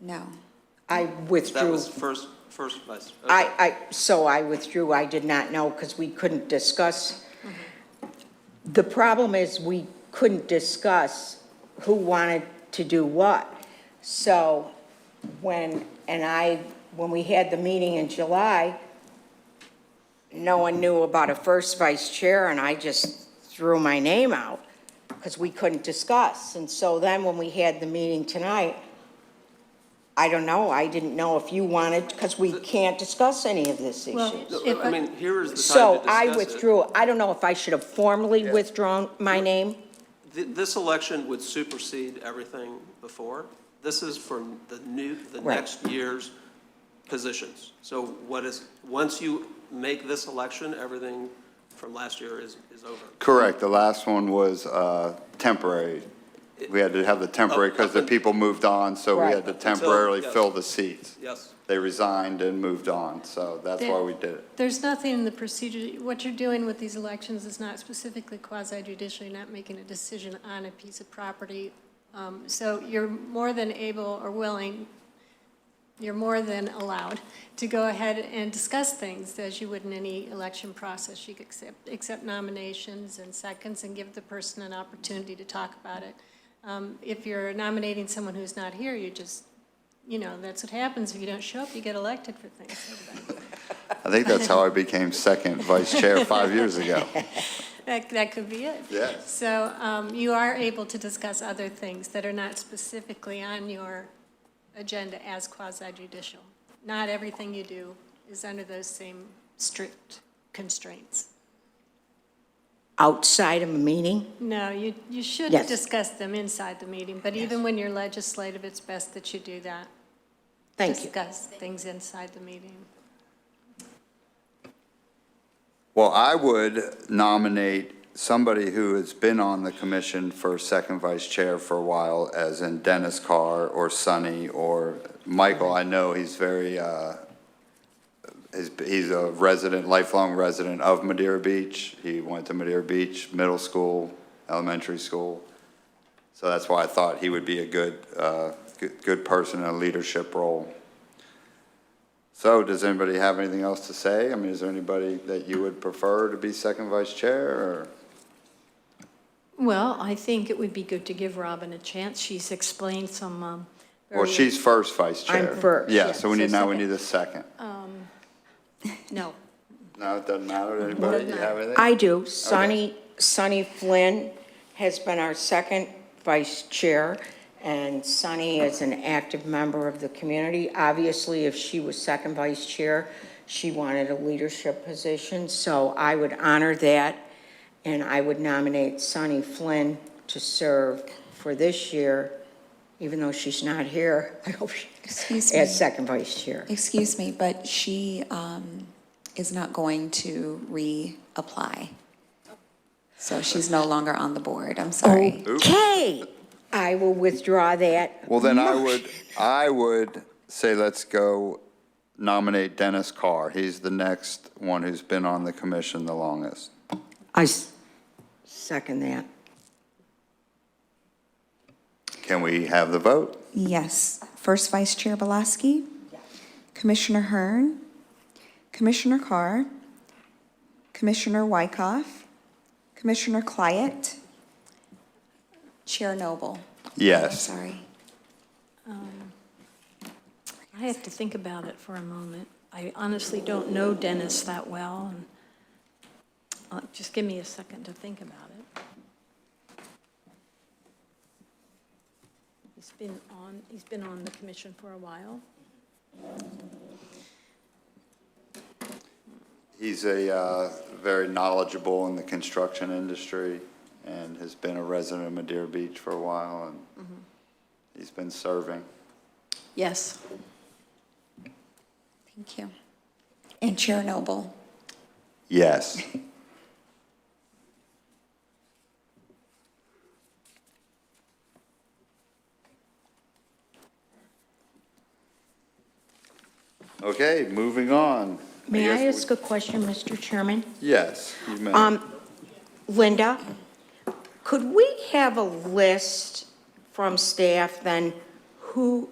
No. I That withdrew. was first, first vice. okay. I, I, so I withdrew. I did not know because we couldn't discuss. Mm-hmm. The problem is we couldn't discuss who wanted to do what. So when, and I, when we had the meeting in July, no one knew about a first vice chair and I just threw my name out because we couldn't discuss. And so then when we had the meeting tonight, I don't know, I didn't know if you wanted, because we can't discuss any of this issue. No, I mean, here is the time to So discuss I it. withdrew. I don't know if I should have formally withdrawn my name. Th- This election would supersede everything before. This is for the new, the Right. next year's positions. So what is, once you make this election, everything from last year is, is over. Correct, the last one was uh, temporary. We had to have the temporary because the people moved on, Oh, so we had to Right. temporarily Until- yes. fill the seats. Yes. They resigned and moved on, so that's why we did it. There's nothing in the procedure, what you're doing with these elections is not specifically quasi judicial, you're not making a decision on a piece of property. Um, So you're more than able or willing, you're more than allowed to go ahead and discuss things as you would in any election process. You could accept, accept nominations and seconds and give the person an opportunity to talk about it. Um, If you're nominating someone who's not here, you just, you know, that's what happens. If you don't show up, you get elected for things. I think that's how I became second vice chair five years ago. That, that could be it. Yes. So um, you are able to discuss other things that are not specifically on your agenda as quasi judicial. Not everything you do is under those same strict constraints. Outside of a meeting? No, you, you should Yes. discuss them inside the meeting, but even when you're legislative, it's best that you do that. Thank you. Discuss things inside the meeting. Well, I would nominate somebody who has been on the commission for second vice chair for a while, as in Dennis Carr or Sonny or Michael. I know he's very, uh, he's- he's a resident, lifelong resident of Madeira Beach. He went to Madeira Beach Middle School, elementary school. So that's why I thought he would be a good, uh, good- good person in a leadership role. So does anybody have anything else to say? I mean, is there anybody that you would prefer to be second vice chair or? Well, I think it would be good to give Robin a chance. She's explained some, um. Well, very- she's first vice I'm chair. first, Yeah, yeah, so we need, so now we second. need a second. No, No, it doesn't matter to anybody. Do you have anything? I do. Sonny, Sonny Flynn has been our second vice chair, and Sonny is an active member of the community. Obviously, if she was second vice chair, she wanted a leadership position, so I would honor that, and I would nominate Sonny Flynn to serve for this year, even though she's not here, I hope she, Excuse me. as second vice chair. Excuse me, but she um, is not going to reapply. So she's no longer on the board. I'm sorry. Oh. Okay, I will withdraw that. Well, then I would, I would say let's go nominate Dennis Carr. He's the next one who's been on the commission the longest. I s- second that. Can we have the vote? Yes. First Vice Chair Belaski. Commissioner Hearn. Commissioner Carr. Commissioner Wykoff. Commissioner Clyett. Chair Noble. Yes. Sorry. I have to think about it for a moment. I honestly don't know Dennis that well, and, uh, just give me a second to think about it. He's been on, he's been on the commission for a while. He's a, uh, very knowledgeable in the construction industry and has been a resident of Madeira Beach for a while and he's been serving. Yes. Thank you. And Chair Noble. Yes. Okay, moving on. May I guess ask Um, a question, Mr. Chairman? we- Yes, you may. Linda, could we have a list from staff then who